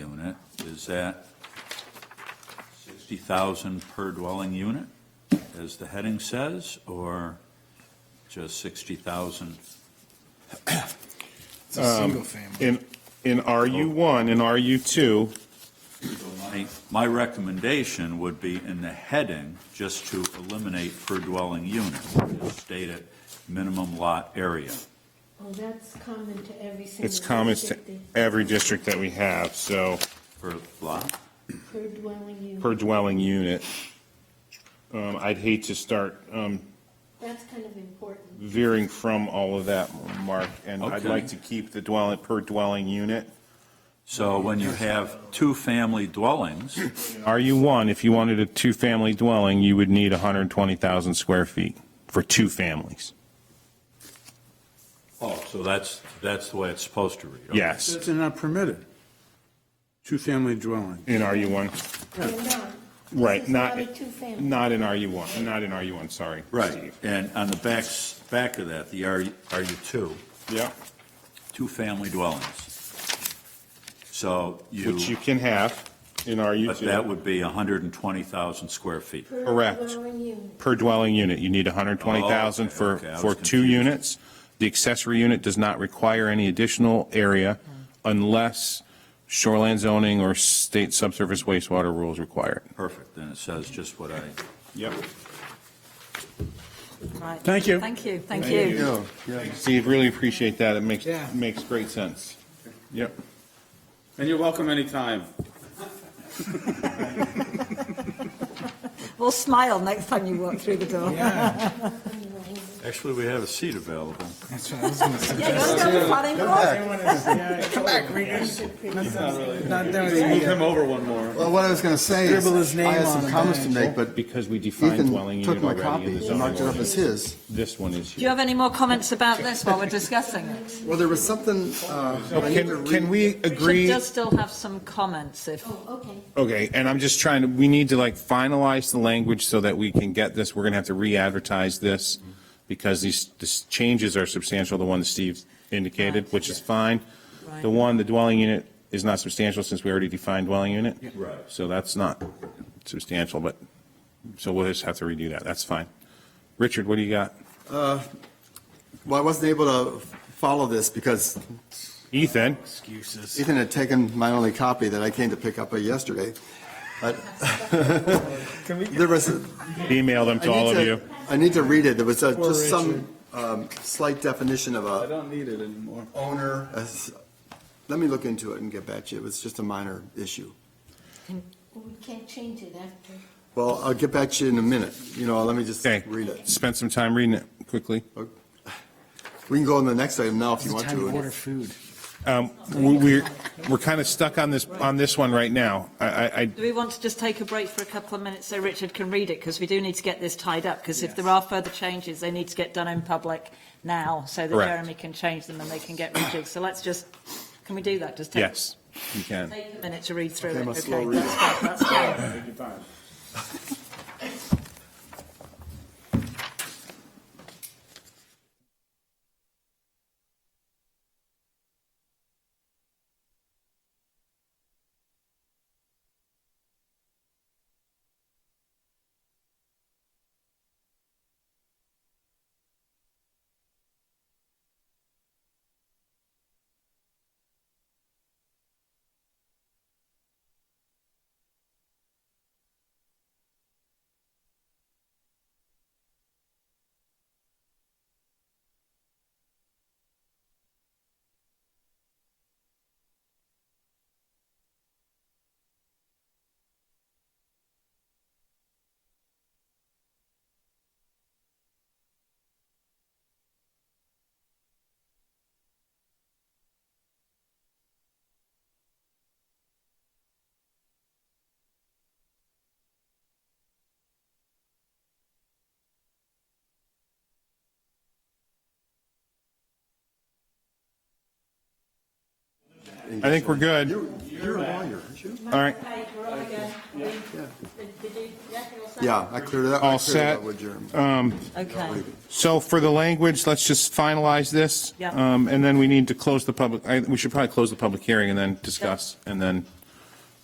is at 60,000 per dwelling unit, as the heading says, or just 60,000? It's a single family. In, in RU1 and RU2, So My my recommendation would be in the heading, just to eliminate per dwelling unit, just state it, minimum lot area. Oh, that's common to every single. it's comments to district, every district that we have, so Per lot? the Per dwelling unit. per dwelling unit. Um, I'd hate to start um, That's kind of important. veering from all of that, Mark, and I'd Okay. like to keep the dwelling, per dwelling unit. So when you have two-family dwellings, RU1, if you wanted a two-family dwelling, you would need 120,000 square feet for two families. oh, so that's, that's the way it's supposed to read. okay. Yes, That's not permitted. Two-family dwelling. in RU1, They're not. right, It's not, a two-family. not in RU1, not in RU1, sorry. Right, Steve. and on the back, back of that, the RU, RU2, Yeah, two-family dwellings. So which you you, can have in but that RU2, would be 120,000 square feet. Per Correct. dwelling unit. per dwelling unit, you need 120,000 Okay, for, Oh, okay, I was for two confused. units. The accessory unit does not require any additional area unless shoreline zoning or state subsurface wastewater rules require it. Perfect, then it says just what I, Yep. Right. Thank you. Thank you, thank you. Steve, really appreciate that, it makes, Yeah. makes great sense. Yep. And you're welcome anytime. We'll smile next time you walk through the door. Yeah, actually, we have a seat available. that's what I was going to say. Yeah, you're still the planning board. Come back, Not doing Move it. him over one more. Well, what I was going to say is, Scribble his name I had on some it. comments to make, but Because we define dwelling Ethan took unit my already in the copy and zoning marked it up as ordinance. his. This one is Do you here. have any more comments about this while we're discussing it? Well, there was something, uh, I need to Can, read. can we Richard agree, does still have some comments if, Oh, okay. okay, and I'm just trying to, we need to like finalize the language so that we can get this, we're gonna have to re-advertise this because these, these changes are substantial, the one that Steve indicated, which is fine. The right, one, the dwelling unit is not substantial since we already defined dwelling unit. Right. So that's not substantial, but, so we'll just have to redo that, that's fine. Richard, what do you got? Well, I wasn't able to follow this because Ethan? Excuses. Ethan had taken my only copy that I came to pick up uh, yesterday. But there was, Emailed them I to all need of to, you. I need to read it. There was uh, Poor just some um, slight definition of I a don't need it anymore. owner. uh, s- Let me look into it and get back to you. It was just a minor issue. Well, We can't change it after. Well, I'll get back to you in a minute. You know, let me just Okay. read it. Spend some time reading it quickly. We can go on the next item now if you It's want time to order to. food. Um, we- We're, we're kind of stuck on this, on this one right now. I, I, I- do we want to just take a break for a couple of minutes so Richard can read it? Because we do need to get this tied up, because if there are further changes, they need to get done in public now so that Correct. Jeremy can change them and they can get rejigged. So let's just, can we do that? Just take yes, you can. Take a minute to read through Okay, it, I'm a slow okay? reader. That's fine, that's fine. Take your time. I think we're good. You- You're a lawyer, aren't you? All right, Right, we're on again. We- we- we did- that was- Yeah, I cleared it up. all I cleared it set. up with Jeremy. Um, Okay. So for the language, let's just finalize this. Yeah. Um, And then we need to close the public, I- we should probably close the public hearing and then discuss, and then